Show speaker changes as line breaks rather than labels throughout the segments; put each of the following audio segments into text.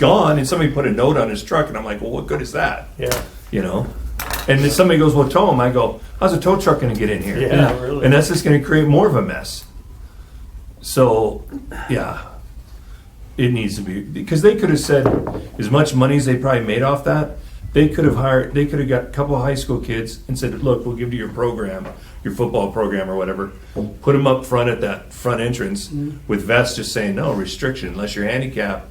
gone and somebody put a note on his truck and I'm like, well, what good is that?
Yeah,
You know? And then somebody goes, well, tow him. I go, how's a tow truck going to get in here?
Yeah, really.
And that's just going to create more of a mess. So, yeah, it needs to be because they could have said as much money as they probably made off that. They could have hired. They could have got a couple of high school kids and said, "Look, we'll give you your program, your football program or whatever. Put them up front at that front entrance
Mm-hmm.
with vests, just saying no restriction unless you're handicapped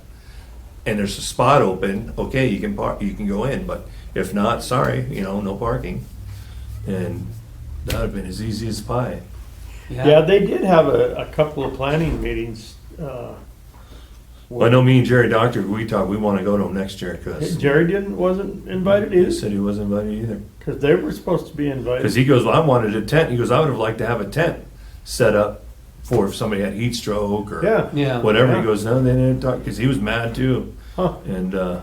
and there's a spot open. Okay, you can park. You can go in, but if not, sorry, you know, no parking." And that would have been as easy as pie.
yeah, they did have a, a couple of planning meetings. uh,
Well, I know me and Jerry Doctor, we talked. We want to go to him next year because
Jerry didn't, wasn't invited
He
either,
said he wasn't invited either.
because they were supposed to be
Because
invited.
he goes, well, I wanted a tent. He goes, I would have liked to have a tent set up for if somebody had heat stroke or
Yeah.
Yeah.
whatever.
Yeah.
He goes, no, they didn't talk because he was mad too.
Huh.
And uh,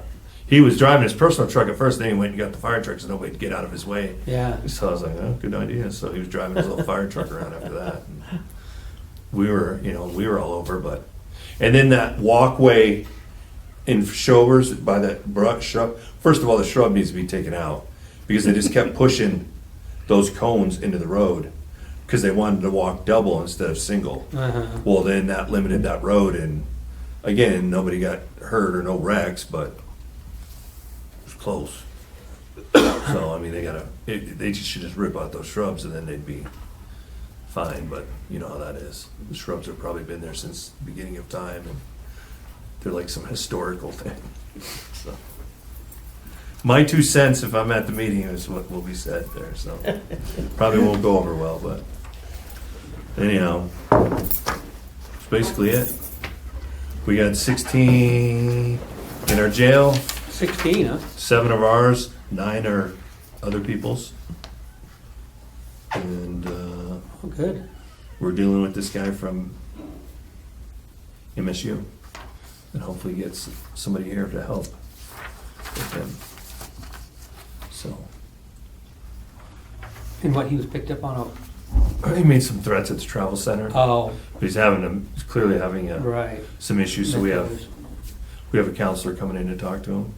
he was driving his personal truck at first. Then he went and got the fire truck so nobody could get out of his way.
Yeah.
So I was like, oh, good idea. So he was driving his little fire truck around after that. And we were, you know, we were all over, but. And then that walkway in Showers by that brush shrub. First of all, the shrub needs to be taken out because they just kept pushing those cones into the road because they wanted to walk double instead of single.
Uh-huh.
Well, then that limited that road, and again, nobody got hurt or no wrecks, but it was close. so I mean, they gotta it, they just should just rip out those shrubs, and then they'd be fine. But you know how that is. The shrubs have probably been there since the beginning of time, and they're like some historical thing. so. My two cents, if I'm at the meeting, is what will be said there. So probably won't go over well, but anyhow. That's basically it. We got 16 in our jail,
16, huh?
seven of ours, nine are other people's. And uh,
Oh, good.
we're dealing with this guy from MSU. And hopefully gets somebody here to help with him. So,
And what he was picked up on a.
he made some threats at the travel center.
Oh,
He's having, a- he's clearly having a-
right.
some issues, so we have, we have a counselor coming in to talk to him.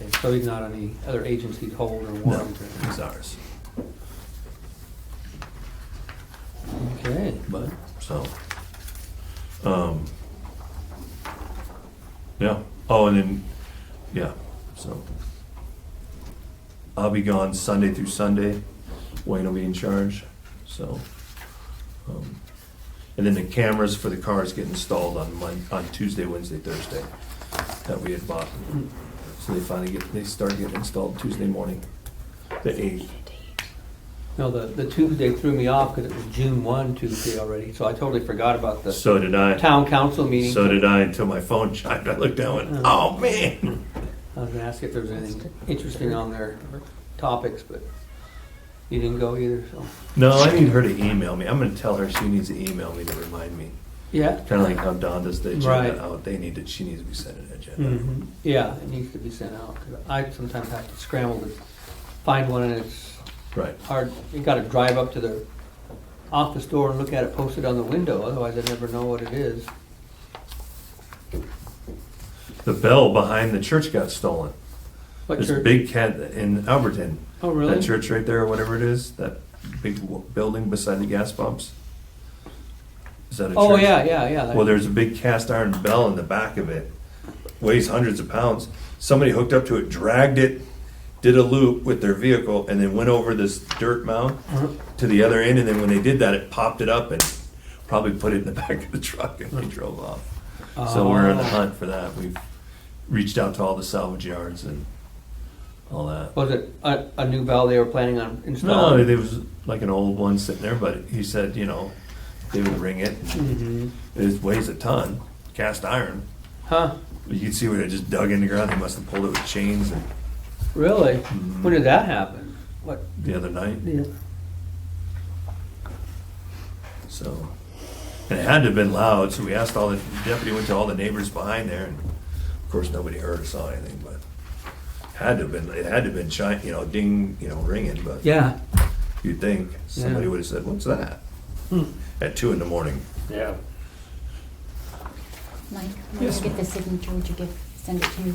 Okay, so he's not on any other agency's hold or
No,
warrant or.
it's ours.
Okay.
But, so. Um, yeah. Oh, and then, yeah, so. I'll be gone Sunday through Sunday. Wayne will be in charge, so. um, And then the cameras for the cars get installed on Mon, on Tuesday, Wednesday, Thursday that we had bought. So they finally get, they start getting installed Tuesday morning, the eighth.
No, the, the Tuesday threw me off because it was June 1 Tuesday already, so I totally forgot about the
So did I.
town council meeting.
So did I until my phone chimed. I looked down and went, oh man.
I was gonna ask if there was anything interesting on their topics, but you didn't go either, so.
No, I need her to email me. I'm going to tell her she needs to email me to remind me.
Yeah?
Kind of like how Don does the agenda
Right.
out. "Oh, They need to, she needs to be sent an agenda.
Mhm. Yeah, it needs to be sent out, 'cause I sometimes have to scramble to find one, and it's
Right.
hard, you gotta drive up to the office door and look at it posted on the window, otherwise I never know what it is.
The bell behind the church got stolen.
What
this
church-
big cat in Alberton.
Oh, really?
That church right there, or whatever it is, that big w- building beside the gas pumps. Is that a
Oh,
church?
yeah, yeah, yeah. that-
Well, there's a big cast iron bell in the back of it, weighs hundreds of pounds. Somebody hooked up to it, dragged it, did a loop with their vehicle, and then went over this dirt mound to the other end. And then when they did that, it popped it up and probably put it in the back of the truck and they drove off. So we're on the
Oh.
hunt for that. We've reached out to all the salvage yards and all that.
Was it a, a new bell they were planning on
No,
installing?
it was like an old one sitting there, but he said, you know, they would ring it. It weighs a ton, cast iron.
Huh,
You can see where they just dug in the ground. They must have pulled it with chains and
really? When did that happen? What,
the other night.
yeah,
So, and it had to have been loud. So we asked all the the deputy went to all the neighbors behind there, and of course nobody heard or saw anything. But had to have been it had to have been chi- you know ding you know ringing. But
yeah,
you'd think somebody
Yeah. Hmm.
would have said, "What's that?" At two in the morning.
Yeah.
Mike, when you get the signature, would you give send it to you.